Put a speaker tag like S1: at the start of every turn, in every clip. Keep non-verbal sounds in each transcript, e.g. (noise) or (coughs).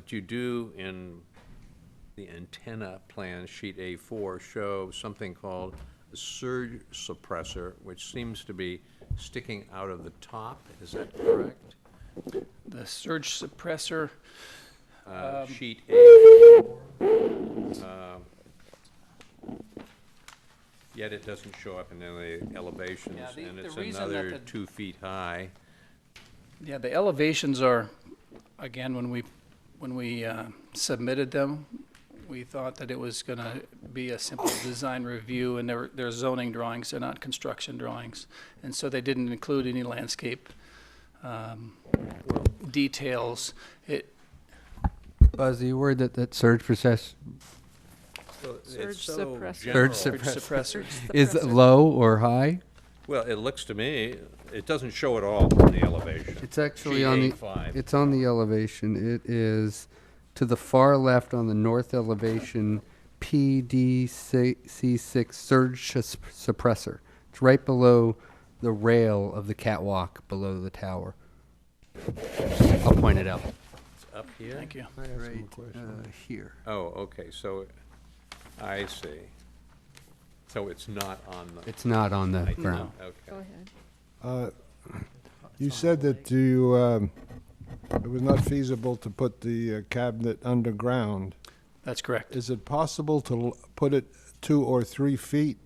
S1: But you do in the antenna plan, sheet A4, show something called a surge suppressor, which seems to be sticking out of the top. Is that correct?
S2: The surge suppressor,
S1: Uh,
S2: Um,
S1: Sheet A4. um, Yet it doesn't show up in any elevations,
S2: Yeah, the-
S1: and
S2: the
S1: it's
S2: reason that
S1: another
S2: the-
S1: two feet high.
S2: yeah, the elevations are, again, when we, when we uh, submitted them, we thought that it was going to be a simple design review, and they're, they're zoning drawings, they're not construction drawings. And so they didn't include any landscape um, details. It,
S3: Buzz, the word that, that surge process
S1: Surge
S4: suppressor. Surge
S3: suppressor.
S2: surge suppressor,
S3: is low or high?
S1: Well, it looks to me, it doesn't show at all on the elevation.
S3: It's actually on the,
S1: GA5.
S3: it's on the elevation. It is to the far left on the north elevation, PDC6 surge sus- suppressor. It's right below the rail of the catwalk below the tower. I'll point it out.
S1: Up here?
S2: thank you.
S3: Right uh, here.
S1: Oh, okay, so, I see. So it's not on the.
S3: It's not on the
S1: I-
S3: ground.
S4: Go
S1: Okay.
S4: ahead.
S5: You said that you, um, it was not feasible to put the uh, cabinet underground.
S2: That's correct.
S5: Is it possible to l- put it two or three feet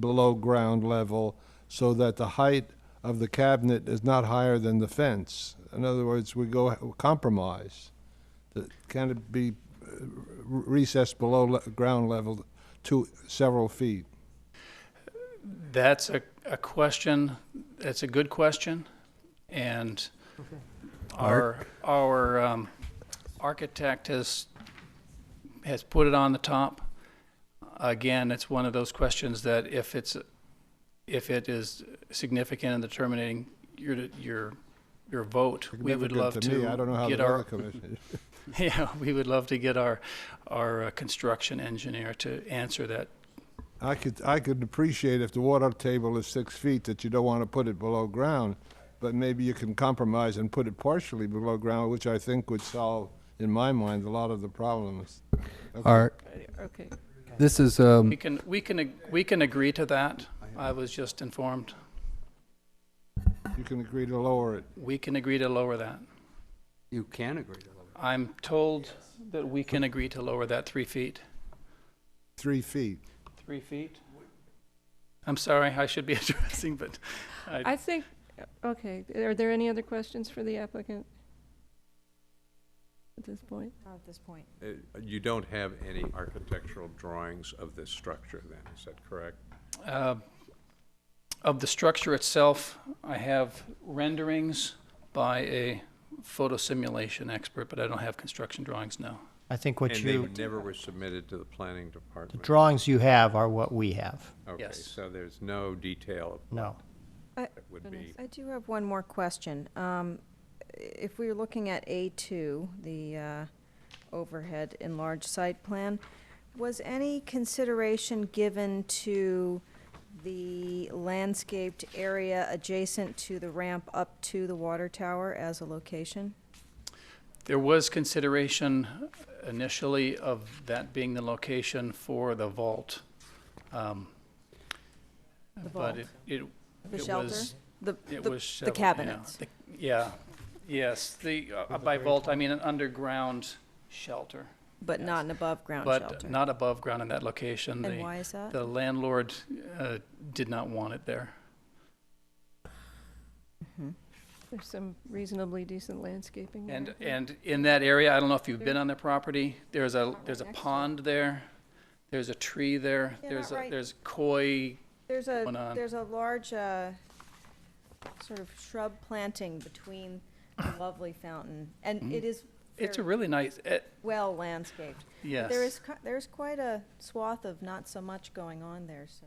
S5: below ground level so that the height of the cabinet is not higher than the fence? In other words, we go h- compromise. That- Can it be uh, r- recessed below le- ground level to several feet?
S2: That's a, a question, that's a good question, and our, our um, architect has, has put it on the top. Again, it's one of those questions that if it's, if it is significant in determining your, your, your vote, we would
S5: Significant
S2: love to
S5: me. I don't know how
S2: get
S5: the
S2: our,
S5: other commissioners.
S2: (laughs) yeah, we would love to get our, our uh, construction engineer to answer that
S5: I could, I could appreciate if the water table is six feet, that you don't want to put it below ground, but maybe you can compromise and put it partially below ground, which I think would solve, in my mind, a lot of the problems.
S3: Our,
S4: Okay,
S3: this is, um,
S2: We can, we can, ag- we can agree to that. I was just informed.
S5: You can agree to lower it.
S2: We can agree to lower that.
S3: you can agree to that.
S2: I'm told that we can agree to lower that three feet.
S5: Three feet.
S2: Three feet? I'm sorry, I should be (laughs) addressing, but I,
S4: I think, okay, are there any other questions for the applicant? At this point?
S6: Not at this point.
S1: Uh, You don't have any architectural drawings of this structure then, is that correct?
S2: uh, of the structure itself, I have renderings by a photosimulation expert, but I don't have construction drawings, no.
S7: I think what
S1: And
S7: you,
S1: they never were submitted to the planning department?
S7: the drawings you have are what we have.
S1: Okay,
S2: Yes.
S1: so there's no detail
S7: No.
S1: that would
S4: Goodness.
S1: be,
S6: I do have one more question. Um, If we were looking at A2, the uh, overhead enlarged site plan, was any consideration given to the landscaped area adjacent to the ramp up to the water tower as a location?
S2: There was consideration initially of that being the location for the vault. um, But
S6: The vault.
S2: it, it
S6: The
S2: It
S6: shelter?
S2: was-
S6: The-
S2: It
S6: the-
S2: was
S6: The
S2: shovel- yeah,
S6: cabinets?
S2: the- Yeah, yes, the, uh, by vault, I mean an underground shelter,
S6: But not an above-ground shelter?
S2: but not above ground in that location.
S6: And
S2: The-
S6: why is that?
S2: The landlord uh, did not want it there.
S4: There's some reasonably decent landscaping there.
S2: And, and in that area, I don't know if you've been on the property, there's a, there's a pond there, there's a tree there,
S6: Yeah,
S2: there's,
S6: not
S2: a
S6: right.
S2: there's koi,
S6: There's
S2: going
S6: a,
S2: on.
S6: there's a large, uh, sort of shrub planting between
S2: (coughs)
S6: the lovely fountain,
S2: Hmm?
S6: and it is
S2: it's a
S6: very
S2: really nice, eh,
S6: well landscaped. But
S2: yes.
S6: There is, qui- there's quite a swath of not so much going on there, so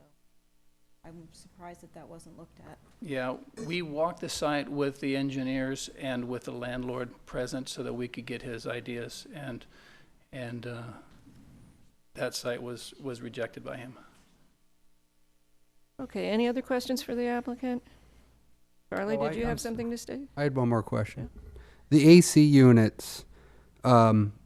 S6: I'm surprised that that wasn't looked at.
S2: Yeah, we walked the site with the engineers and with the landlord present so that we could get his ideas and, and, uh, that site was, was rejected by him.
S4: Okay, any other questions for the applicant? Charlie,
S3: Oh,
S4: did
S3: I-
S4: you
S3: I'm
S4: have
S3: s-
S4: something to say?
S3: I had one more question. The AC units, Um,